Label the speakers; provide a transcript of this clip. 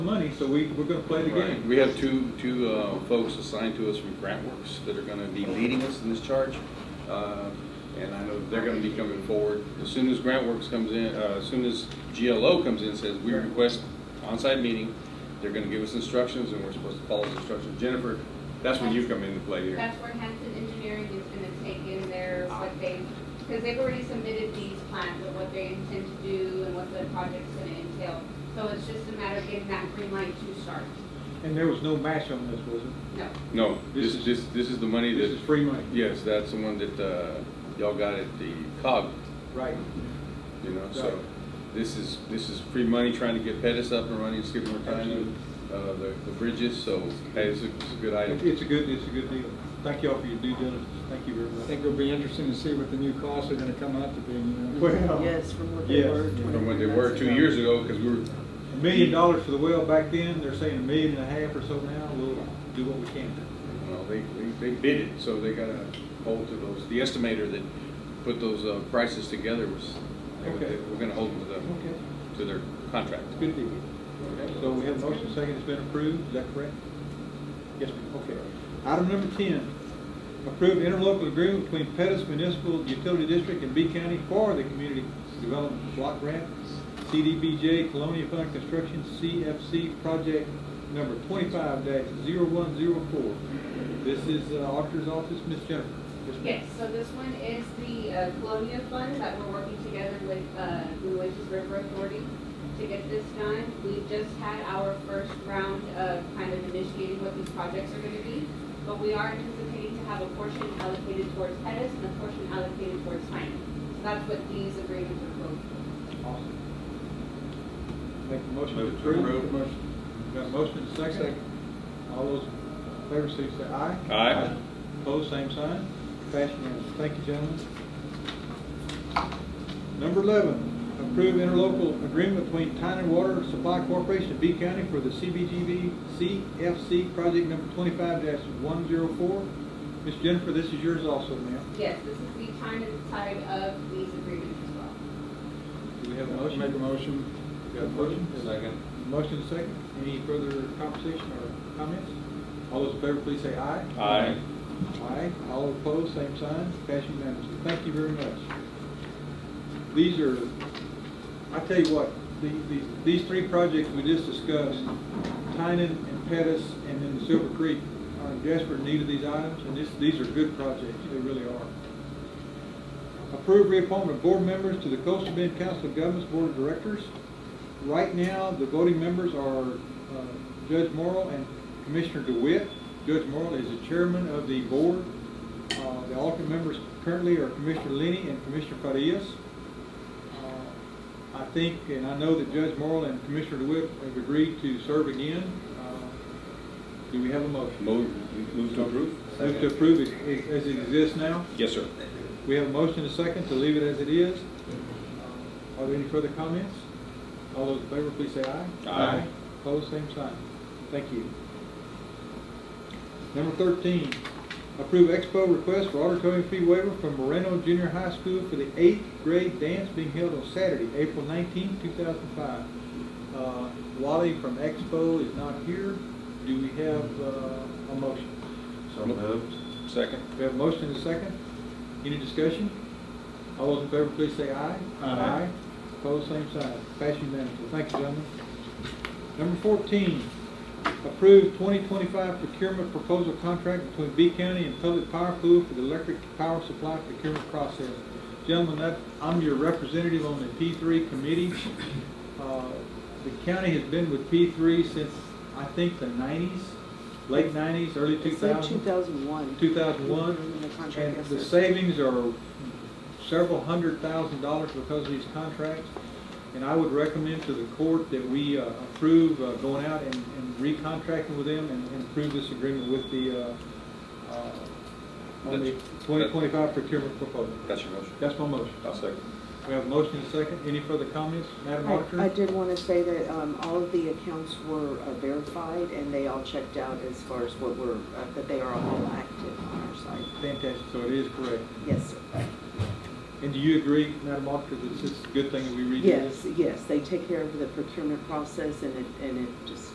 Speaker 1: money, so we, we're gonna play the
Speaker 2: Right.
Speaker 1: game.
Speaker 2: We have two, two uh, folks assigned to us from GrantWorks that are gonna be leading us in this charge. Uh, And I know they're gonna be coming forward. As soon as GrantWorks comes in, uh, as soon as GLO comes in, and says, we request on-site meeting, they're gonna give us instructions and we're supposed to follow the instructions. Jennifer, that's when you come into play here.
Speaker 3: That's where Hanson Engineering is gonna take in their, what they, because they've already submitted these plans of what they intend to do and what the project's gonna entail. So it's just a matter of getting that green light to start.
Speaker 1: And there was no match on this, was it?
Speaker 3: No,
Speaker 2: No, this is, this, this is the money
Speaker 1: This
Speaker 2: that,
Speaker 1: is free money.
Speaker 2: yes, that's the one that uh, y'all got at the COG
Speaker 1: Right.
Speaker 2: You know,
Speaker 1: Right.
Speaker 2: so this is, this is free money trying to get Pettus up and running, and skipping more time, uh, the, the bridges, so, hey, it's a, it's a good
Speaker 1: It-
Speaker 2: item.
Speaker 1: It's a good, it's a good deal. Thank y'all for your due diligence. Thank you very
Speaker 4: I
Speaker 1: much.
Speaker 4: think it'll be interesting to see what the new costs are gonna come out to be, you know.
Speaker 1: Well,
Speaker 5: Yes, from what they
Speaker 1: Yes.
Speaker 5: were.
Speaker 2: From what they were two years ago, because we were,
Speaker 1: a million dollars for the well back then, they're saying a million and a half or so now, we'll do what we can.
Speaker 2: well, they, they, they bid it, so they gotta hold to those. The estimator that put those, uh, prices together was, they were-
Speaker 1: Okay.
Speaker 2: we're gonna hold to them,
Speaker 1: Okay.
Speaker 2: to their contract.
Speaker 1: It's a good deal. So we have a motion, second, it's been approved, is that correct? Yes, ma'am, okay. Item number ten, approve interlocal agreement between Pettus Municipal Utility District and B County for the Community Development Block Grant, CDBJ Colonial Fund Construction, CFC Project Number twenty-five 104 This is uh, Auditor's Office, Ms. Jennifer. Yes, ma'am.
Speaker 3: yes, so this one is the uh, Colonia Fund that we're working together with, uh, New Oasis River Authority to get this done. We just had our first round of kind of initiating what these projects are gonna be. But we are anticipating to have a portion allocated towards Pettus and a portion allocated towards Hyman. So that's what these agreements are for.
Speaker 1: Awesome. Make the motion to
Speaker 2: Move to
Speaker 1: approve.
Speaker 2: approve.
Speaker 1: Got a motion and a second.
Speaker 4: Second.
Speaker 1: All those in favor, say say aye.
Speaker 2: Aye.
Speaker 1: Opposed, same sign. Passed unanimously. Thank you, gentlemen. Number eleven, approve interlocal agreement between Tyne Water Supply Corporation of B County for the CBGB CFC project number twenty-five one zero four. Ms. Jennifer, this is yours also, ma'am.
Speaker 3: Yes, this is the time and tide of these agreements as well.
Speaker 1: Do we have a motion?
Speaker 4: Make a motion.
Speaker 1: Got a motion? Motion and a second. Any further conversation or comments? All those in favor, please say aye.
Speaker 2: Aye.
Speaker 1: Aye. All opposed, same sign. Passed unanimously. Thank you very much. These are, I tell you what, the- these, these three projects we just discussed, Tynan and Pettus and then the Silver Creek, are in desperate need of these items, and this, these are good projects. They really are. Approve reappointment of board members to the Coastal Bend Council of Governments Board of Directors. Right now, the voting members are uh, Judge Morrow and Commissioner DeWitt. Judge Morrow is the chairman of the board. Uh, The alternate members currently are Commissioner Lenny and Commissioner Farias. Uh, I think, and I know that Judge Morrow and Commissioner DeWitt have agreed to serve again. Uh, Do we have a motion?
Speaker 2: Move, move to approve?
Speaker 1: Move to approve it as it exists now?
Speaker 2: Yes, sir.
Speaker 1: We have a motion and a second to leave it as it is. Are there any further comments? All those in favor, please say aye.
Speaker 2: Aye.
Speaker 1: Opposed, same sign. Thank you. Number thirteen, approve expo request for auditorium fee waiver from Moreno Junior High School for the eighth grade dance being held on Saturday, April nineteenth, two thousand five. Uh, Wally from Expo is not here. Do we have uh, a motion?
Speaker 2: So moved. Second?
Speaker 1: We have a motion and a second. Any discussion? All those in favor, please say aye.
Speaker 2: Aye.
Speaker 1: Opposed, same sign. Pass unanimously. Thank you, gentlemen. Number fourteen, approve twenty twenty-five procurement proposal contract between B County and Public Power Pool for the electric power supply procurement process. Gentlemen, that, I'm your representative on the P three committee. Uh, The county has been with P three since, I think, the nineties, late nineties, early two
Speaker 5: It said
Speaker 1: thousands.
Speaker 5: 2001.
Speaker 1: 2001,
Speaker 5: In the contract,
Speaker 1: and
Speaker 5: yes,
Speaker 1: the
Speaker 5: sir.
Speaker 1: savings are several hundred thousand dollars because of these contracts. And I would recommend to the court that we uh, approve uh, going out and and recontracting with them and and approve this agreement with the, uh, uh, on the
Speaker 2: That's-
Speaker 1: 2025 procurement proposal.
Speaker 2: That's your motion.
Speaker 1: That's my motion.
Speaker 2: I'll second.
Speaker 1: We have a motion and a second. Any further comments, Madam Auditor?
Speaker 5: I I did want to say that um, all of the accounts were uh, verified and they all checked out as far as what were, uh, that they are all active on our site.
Speaker 1: Fantastic, so it is correct.
Speaker 5: Yes, sir.
Speaker 1: And do you agree, Madam Auditor, that this is a good thing that we redo this?
Speaker 5: Yes, yes, they take care of the procurement process and it, and it just